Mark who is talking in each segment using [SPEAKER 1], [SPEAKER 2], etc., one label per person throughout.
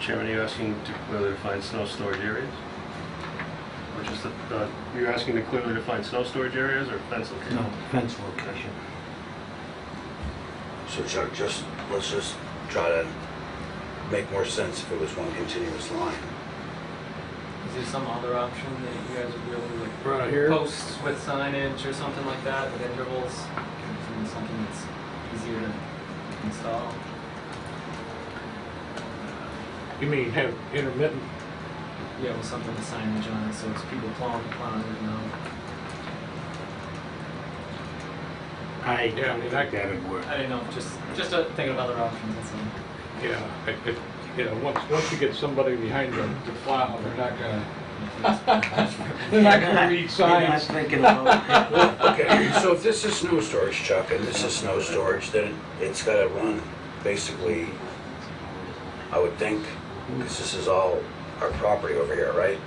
[SPEAKER 1] Chairman, are you asking to clearly define snow storage areas? Or just the, the- you're asking to clearly define snow storage areas or fence location?
[SPEAKER 2] No, fence location.
[SPEAKER 3] So Chuck, just, let's just try to make more sense if it was one continuous line.
[SPEAKER 4] Is there some other option that you guys would really like?
[SPEAKER 5] Right here?
[SPEAKER 4] Posts with signage or something like that at intervals, Something- something that's easier to install?
[SPEAKER 5] You mean have intermittent?
[SPEAKER 4] Yeah, with something with signage on it, so it's people plowing, plowing, you know?
[SPEAKER 2] I
[SPEAKER 5] Yeah, I mean, I-
[SPEAKER 2] think that would work.
[SPEAKER 4] I didn't know, just, just uh, thinking of other options, that's all.
[SPEAKER 5] Yeah, it, it, you know, once, once you get somebody behind them to plow, they're not gonna, they're not gonna read
[SPEAKER 2] You're not
[SPEAKER 5] signs.
[SPEAKER 2] thinking about,
[SPEAKER 3] Okay, so if this is snow storage, Chuck, and this is snow storage, then it's gotta run basically, I would think, because this is all our property over here, right?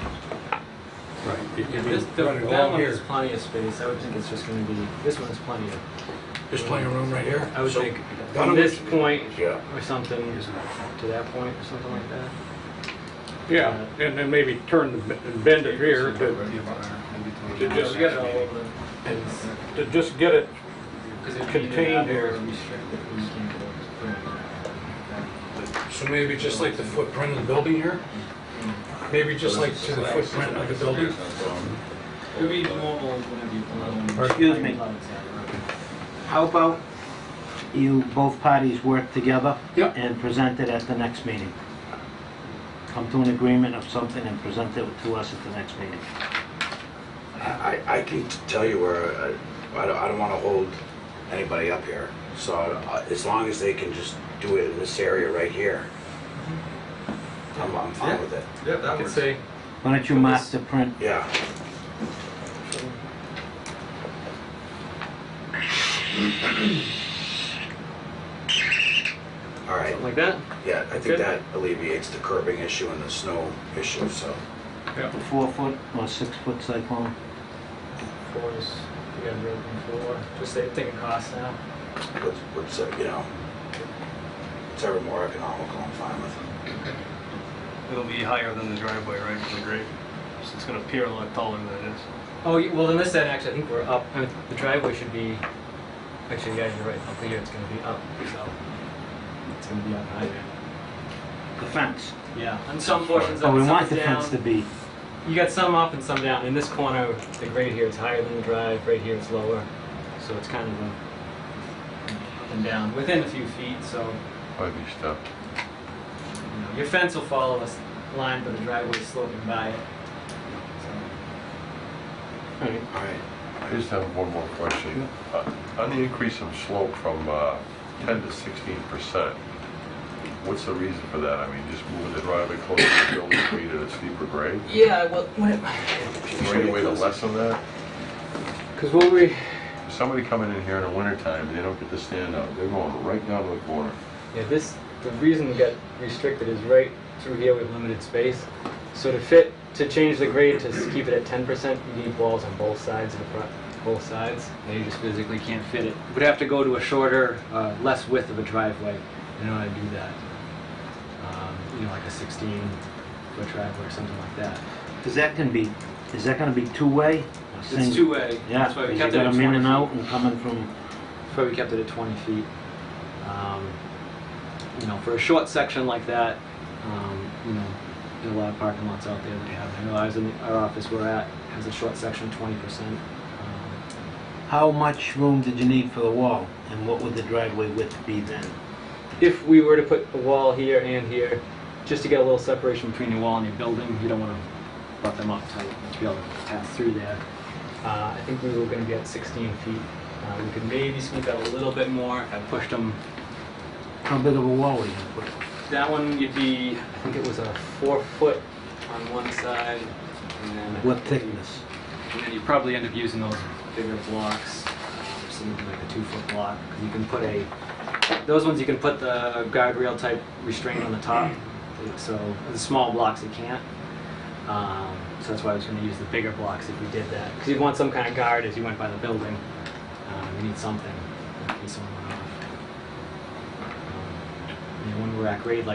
[SPEAKER 5] Right. you- you
[SPEAKER 4] Yeah,
[SPEAKER 5] mean
[SPEAKER 4] this, the-
[SPEAKER 5] running
[SPEAKER 4] that
[SPEAKER 5] along
[SPEAKER 4] one
[SPEAKER 5] here.
[SPEAKER 4] has plenty of space, I would think it's just gonna be, this one's plenty of,
[SPEAKER 3] There's plenty of room right here.
[SPEAKER 4] I would
[SPEAKER 3] So-
[SPEAKER 4] think,
[SPEAKER 3] why don't
[SPEAKER 4] from this
[SPEAKER 3] we-
[SPEAKER 4] point
[SPEAKER 3] Yeah.
[SPEAKER 4] or something, to that point or something like that.
[SPEAKER 5] Yeah, and then maybe turn the, b- and bend it here to, to
[SPEAKER 4] Yeah,
[SPEAKER 5] just,
[SPEAKER 4] we got it all over the place.
[SPEAKER 5] to just get it,
[SPEAKER 4] Because it
[SPEAKER 5] Contained
[SPEAKER 4] or
[SPEAKER 5] or-
[SPEAKER 4] restricted, we can't go to
[SPEAKER 6] So maybe just like the footprint of the building here? Maybe just like to the footprint of the building?
[SPEAKER 4] It would be normal whenever you pull on.
[SPEAKER 2] Excuse me. how about you, both parties work together?
[SPEAKER 6] Yep.
[SPEAKER 2] And present it at the next meeting. Come to an agreement of something and present it to us at the next meeting.
[SPEAKER 3] I, I I can t- tell you where, uh, I- I don't, I don't want to hold anybody up here. So I- as long as they can just do it in this area right here, I'm, I'm fine with it.
[SPEAKER 4] Yeah, that works. say,
[SPEAKER 2] Why don't you mark the print?
[SPEAKER 3] Yeah. All right,
[SPEAKER 4] like that?
[SPEAKER 3] yeah, I
[SPEAKER 4] Good.
[SPEAKER 3] think that alleviates the curbing issue and the snow issue, so.
[SPEAKER 2] The four foot or six foot cyclone?
[SPEAKER 4] Four is, we got broken four, just say, take a cost now.
[SPEAKER 3] what's, what's, uh, you know, it's ever more economical, I'm fine with it.
[SPEAKER 1] It'll be higher than the driveway, right, from the grade? So it's gonna appear a lot taller than it is.
[SPEAKER 4] Oh, y- well, in this end, actually, I think we're up, I mean, the driveway should be, actually, yeah, you're right, up here, it's gonna be up, so. It's gonna be up higher.
[SPEAKER 2] The fence.
[SPEAKER 4] Yeah, and some portions
[SPEAKER 2] Oh,
[SPEAKER 4] of it,
[SPEAKER 2] we
[SPEAKER 4] some
[SPEAKER 2] want
[SPEAKER 4] is
[SPEAKER 2] the fence to
[SPEAKER 4] down.
[SPEAKER 2] be,
[SPEAKER 4] You got some up and some down. In this corner, the grade here is higher than the drive, right here is lower. So it's kind of a up and down, within a few feet, so,
[SPEAKER 7] Ugly stuff.
[SPEAKER 4] you know, your fence will follow a s- line, but the driveway's sloping by it. So,
[SPEAKER 3] All right,
[SPEAKER 7] I just have one more question. Uh, On the increase in slope from uh, 10 to 16 percent, what's the reason for that? I mean, just moving the driveway closer to the building, created a steeper grade?
[SPEAKER 4] Yeah, well,
[SPEAKER 7] Is there any way to lessen that?
[SPEAKER 4] because what we,
[SPEAKER 7] Somebody coming in here in the wintertime, they don't get to stand up, they're going right down to the corner.
[SPEAKER 4] Yeah, this, the reason we got restricted is right through here with limited space. So to fit, to change the grade to s- keep it at ten percent, you need walls on both sides of the front, both sides. And you just physically can't fit it. Would have to go to a shorter, uh, less width of a driveway in order to do that. Um, You know, like a sixteen foot driveway or something like that.
[SPEAKER 2] is that gonna be, is that gonna be two-way? or
[SPEAKER 4] It's
[SPEAKER 2] single?
[SPEAKER 4] two-way.
[SPEAKER 2] Yeah,
[SPEAKER 4] That's why we
[SPEAKER 2] because
[SPEAKER 4] kept
[SPEAKER 2] you
[SPEAKER 4] it at
[SPEAKER 2] got them in
[SPEAKER 4] twenty
[SPEAKER 2] and
[SPEAKER 4] feet.
[SPEAKER 2] out and coming from,
[SPEAKER 4] That's why we kept it at 20 feet. Um, you know, for a short section like that, um, you know, there's a lot of parking lots out there that have. I know I was in our office we're at has a short section 20%. Um,
[SPEAKER 2] how much room did you need for the wall? And what would the driveway width be then?
[SPEAKER 4] if we were to put a wall here and here, just to get a little separation between your wall and your building, you don't want to butt them up to be able to pass through there. Uh, I think we were going to be at 16 feet. Uh, we could maybe squeeze out a little bit more. I pushed them
[SPEAKER 2] How big of a wall were you gonna put?
[SPEAKER 4] That one you'd be, I think it was a four foot on one side, and then I
[SPEAKER 2] What
[SPEAKER 4] think-
[SPEAKER 2] thickness?
[SPEAKER 4] And then you probably end up using those bigger blocks, um, something like a two foot block, 'cause you can put a. Those ones you can put the guardrail type restraint on the top, so the small blocks you can't. Um, so that's why I was going to use the bigger blocks if we did that, because you'd want some kind of guard as you went by the building. Um, you need something in case someone went off. Um, you know, when we're at grade like